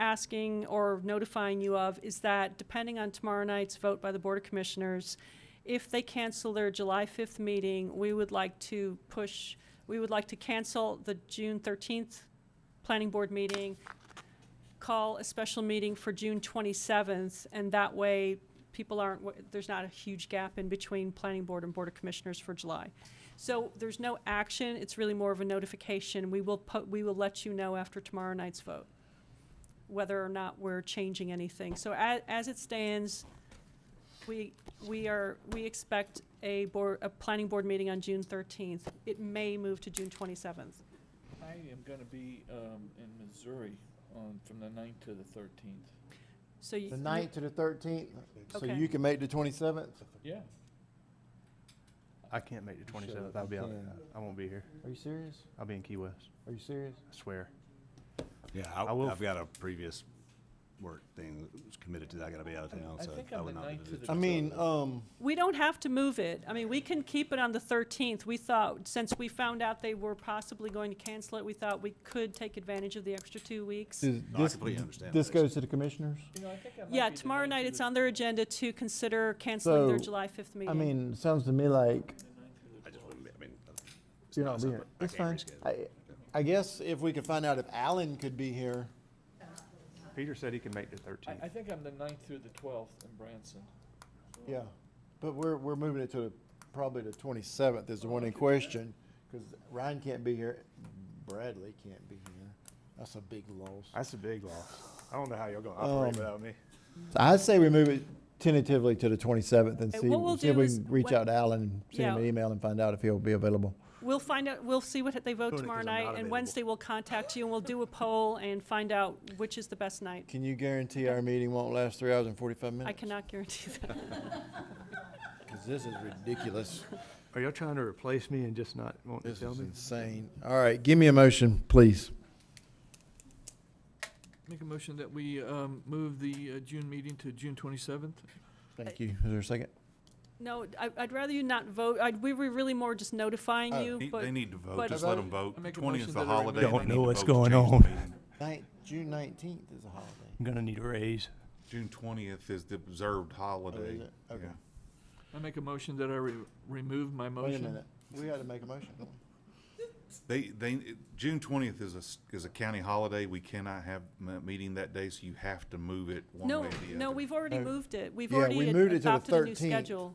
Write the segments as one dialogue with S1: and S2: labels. S1: asking or notifying you of is that depending on tomorrow night's vote by the Board of Commissioners, if they cancel their July 5th meeting, we would like to push, we would like to cancel the June 13th Planning Board meeting, call a special meeting for June 27th, and that way, people aren't, wa- there's not a huge gap in between Planning Board and Board of Commissioners for July. So there's no action, it's really more of a notification. We will, po- we will let you know after tomorrow night's vote whether or not we're changing anything. So as, as it stands, we, we are, we expect a board, a planning board meeting on June 13th. It may move to June 27th.
S2: I am gonna be, um, in Missouri on, from the ninth to the thirteenth.
S1: So you.
S3: The ninth to the thirteenth, so
S1: Okay.
S3: you can make the twenty-seventh?
S2: Yeah.
S4: I can't make the 27th.
S3: you
S4: I'll be out.
S3: can.
S4: I won't be here.
S3: Are you serious?
S4: I'll be in Key West.
S3: Are you serious?
S4: I swear.
S5: Yeah,
S4: I will-
S5: I- I've got a previous work thing that was committed to that, I gotta be out of town,
S2: I
S5: so
S2: think
S5: I
S2: I'm
S5: would
S2: the
S5: not. be
S2: ninth
S5: able
S2: to
S5: do
S2: the
S5: it.
S3: I mean, um,
S1: We don't have to move it. I mean, we can keep it on the 13th. We thought, since we found out they were possibly going to cancel it, we thought we could take advantage of the extra two weeks.
S3: is
S5: No, I
S3: this,
S5: completely understand
S3: this
S5: that.
S3: goes to the commissioners?
S2: You know, I think I might
S1: Yeah,
S2: be the
S1: tomorrow
S2: ninth
S1: night,
S2: to
S1: it's
S2: the-
S1: on their agenda to consider canceling their
S3: So,
S1: July 5th meeting.
S3: I mean, it sounds to me like
S5: I just wouldn't, be- I mean. it's
S3: you're
S5: not
S3: not
S5: something-
S3: being,
S5: I
S3: it's fine.
S5: can't reschedule.
S3: I, I guess if we could find out if Alan could be here,
S4: Peter said he can make the 13th.
S2: I, I think I'm the ninth through the twelfth in Branson.
S3: yeah, but we're, we're moving it to the, probably the twenty-seventh is the one in question, cause Ryan can't be here, Bradley can't be here, that's a big loss.
S4: That's a big loss. I don't know how y'all gonna operate
S3: Um,
S4: without me.
S3: So I'd say we move it tentatively to the 27th and
S1: Uh,
S3: see,
S1: what we'll
S3: see if
S1: do
S3: we
S1: is
S3: can reach
S1: when-
S3: out to Alan and send him an
S1: Yeah.
S3: email and find out if he'll be available.
S1: We'll find out, we'll see what they vote
S5: Doing it
S1: tomorrow
S5: 'cause I'm not
S1: night, and
S5: available.
S1: Wednesday we'll contact you and we'll do a poll and find out which is the best night.
S3: Can you guarantee our meeting won't last three hours and 45 minutes?
S1: I cannot guarantee that.
S3: Because this is ridiculous.
S4: Are y'all trying to replace me and just not want to
S3: This
S4: tell
S3: is
S4: me?
S3: insane. All right, give me a motion, please.
S2: Make a motion that we, um, move the, uh, June meeting to June twenty-seventh.
S3: Thank you. Is there a second?
S1: No, I, I'd rather you not vote. I'd, we were really more just notifying
S3: Oh.
S1: you,
S6: They-
S1: but
S6: They need to
S1: but-
S6: vote, just let
S2: I
S6: them vote.
S2: make a
S6: Twenty is
S2: motion
S6: the
S2: that I
S6: holiday.
S2: remove-
S6: They
S4: Don't
S6: need
S4: know
S6: to
S4: what's
S6: vote to
S4: going
S6: change the
S4: on.
S6: meeting.
S3: Ninth, June 19th is a holiday.
S4: I'm gonna need a raise.
S6: June twentieth is the observed
S3: Oh, is
S6: holiday.
S3: it? Okay.
S2: I
S6: Yeah.
S2: make a motion that I re- remove my motion.
S3: Wait a minute. We had to make a motion. don't we?
S6: They, they, June twentieth is a, s- is a county holiday. We cannot have a meeting that day, so you have to move it one
S1: no,
S6: way or the other.
S1: no, we've already
S3: No.
S1: moved it. We've
S3: Oh. Yeah,
S1: already
S3: we
S1: ad-
S3: moved it to the
S1: adopted a new
S3: 13th.
S1: schedule.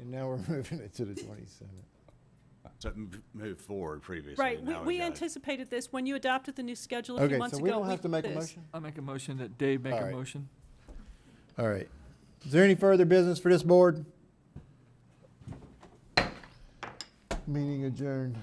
S3: And now we're moving it to the 27th.
S5: So m- move forward previously.
S1: Right, we,
S5: now we've
S1: we
S5: got-
S1: anticipated this. When you adopted the new schedule a few
S3: Okay,
S1: months
S3: so
S1: ago.
S3: we don't have to make a
S1: this.
S3: motion?
S2: I make a motion that Dave make a
S3: Alright.
S2: motion.
S3: All right. Is there any further business for this board? Meeting adjourned.